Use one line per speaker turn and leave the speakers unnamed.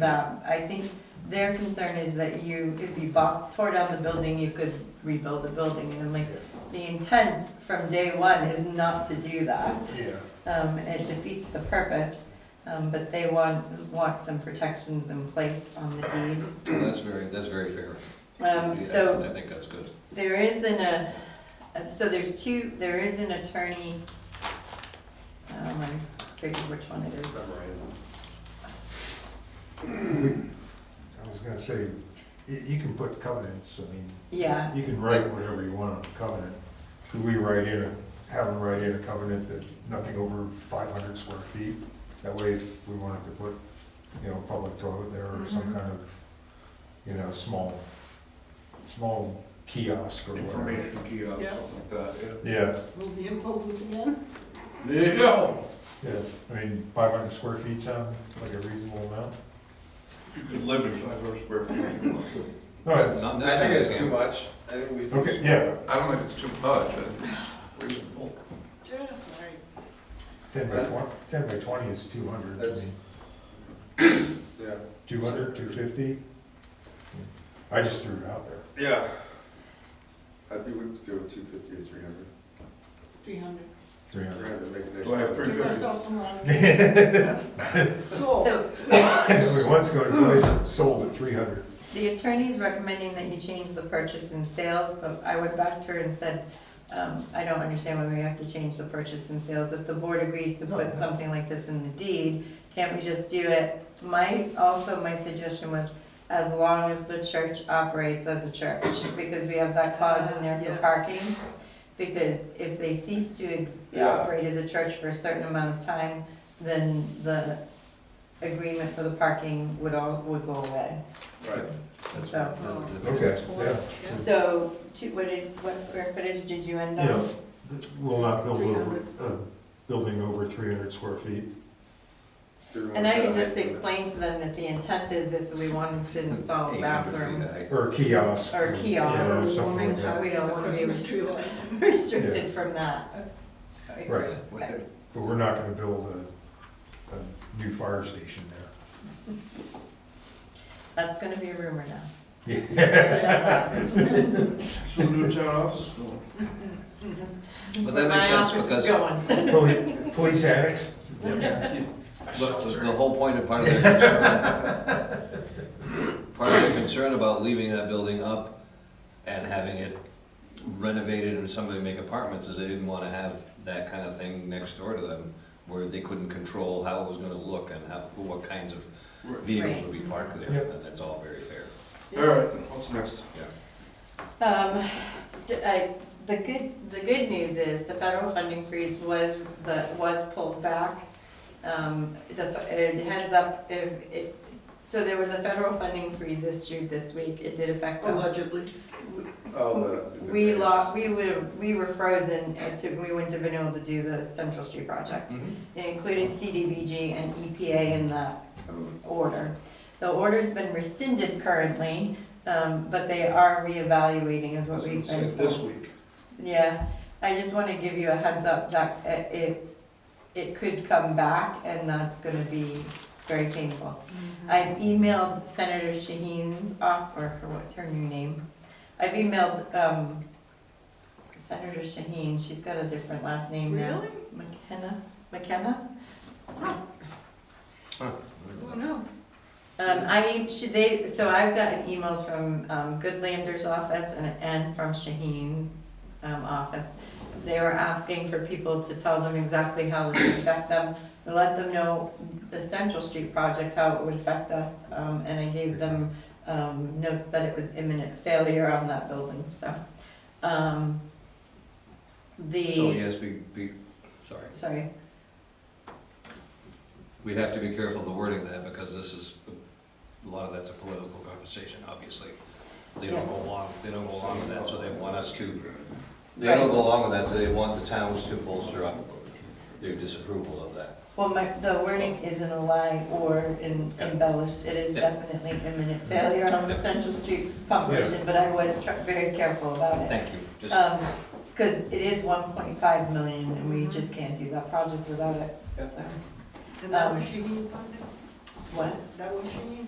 that, I think their concern is that you, if you bought, tore down the building, you could rebuild the building, and I'm like, the intent from day one is not to do that.
Yeah,
Um, it defeats the purpose, um, but they want, want some protections in place on the deed.
Well, That's very, that's very fair.
Um,
Yeah,
so
I think that's good.
There isn't a, uh, so there's two, there is an attorney, um, I figured which one it is.
I was gonna say, you, you can put covenants, I mean,
Yeah.
you can write whatever you want on a covenant. Could we write in, a have them write in a covenant that nothing over five hundred square feet? That way, if we wanted to put, you know, public toilet there or some
Mhm.
kind of, you know, small, small kiosk or whatever.
information kiosk,
Yeah.
something like that, yeah.
Yeah,
Move the info booth again?
There you go.
yeah, I mean, five hundred square feet sound like a reasonable amount?
You could live in five hundred square feet if you want to.
No, it's,
Not in this
I think
town,
it's
yeah.
too much. I think we.
okay, yeah,
I don't think it's too much, I think it's reasonable.
Just right.
ten by twenty, ten by twenty is two hundred.
That's- Yeah.
200, 250? I just threw it out there.
Yeah. I'd be willing to go two fifty or three hundred.
Three hundred.
300.
make it nice.
Do I have three
Give
fifty?
ourselves some money. So,
So
We once go to place and sold at 300.
The attorney's recommending that you change the purchase and sales, but I went back to her and said, um, I don't understand why we have to change the purchase and sales. If the board agrees to put something like this in the deed, can't we just do it? My, also, my suggestion was, as long as the church operates as a church, because we have that clause in there for
Yes.
parking. Because if they cease to ex-
Yeah.
operate as a church for a certain amount of time, then the agreement for the parking would all, would go away.
Right.
That's-
So- um,
that- that-
Yeah,
So, two, what did, what square footage did you end
you know,
up?
th- we'll not build over, a building over 300 square feet.
Do we wanna
And I
set
can
a
just
height limit?
explain to them that the intent is if we wanted to install a
800 feet
bathroom,
high.
Or a kiosk.
Or a kiosk.
Yeah, or something like that.
We don't wanna be
Christmas tree
restricted.
light.
restricted from that.
Right.
Okay.
But we're not going to build a, a new fire station there.
That's gonna be a rumor now. That's
But
So the new town office is going.
where
that
my
makes sense
office is
because-
going.
Poli- Police annex?
But the the whole point of part of their concern, part of their concern about leaving that building up and having it renovated and somebody make apartments is they didn't want to have that kind of thing next door to them where they couldn't control how it was going to look and how, who- what kinds of vehicles would be parked there.
Yep.
And that's all very fair.
All right, what's next?
Um, d- I, the good, the good news is the federal funding freeze was, the, was pulled back. Um, the, f- it heads up, if, it, so there was a federal funding freeze issued this week, it Oh, did affect us.
Allegedly.
I'll let it be Oh, the
We lost,
variance.
we were, we were frozen, uh, to, we wouldn't have been able to do the Central Street project.
Mm-hmm.
It included CDBG and EPA in that um, order. The order's been rescinded currently, um, but they are reevaluating is what we've
Say
been
This
told.
week.
Yeah, I just wanna give you a heads up that uh, it, it could come back and that's gonna be very painful.
Mm-hmm.
I've emailed Senator Shaheen's off, or her- what's her new name? I've emailed, um, Senator Shaheen, she's got a different last name now.
Really?
McKenna, McKenna?
Oh, no.
Um, I mean, should they, so I've gotten emails from, um, Goodlander's office and, and from Shaheen's, um, office. They were asking for people to tell them exactly how this would affect them, and let them know the Central Street project, how it would affect us. Um, and I gave them, um, notes that it was imminent failure on that building, so, um, the.
So yes, be, be, sorry.
Sorry,
We have to be careful of the wording of that, because this is, a lot of that's a political conversation, obviously. They don't go along, they don't go along with that, so they want us to, they don't go along with that, so they want the towns to bolster up their disapproval of that.
well, my, the wording isn't a lie or in- embellished, it is
Yeah.
definitely imminent failure on the Central Street pump
Yeah.
station, but I was tr- very careful about it.
Thank you, just,
Um 'cause cause it is one point five million and we just can't do that project without it, so,
And that was Shaheen funding?
what?
That was Shaheen?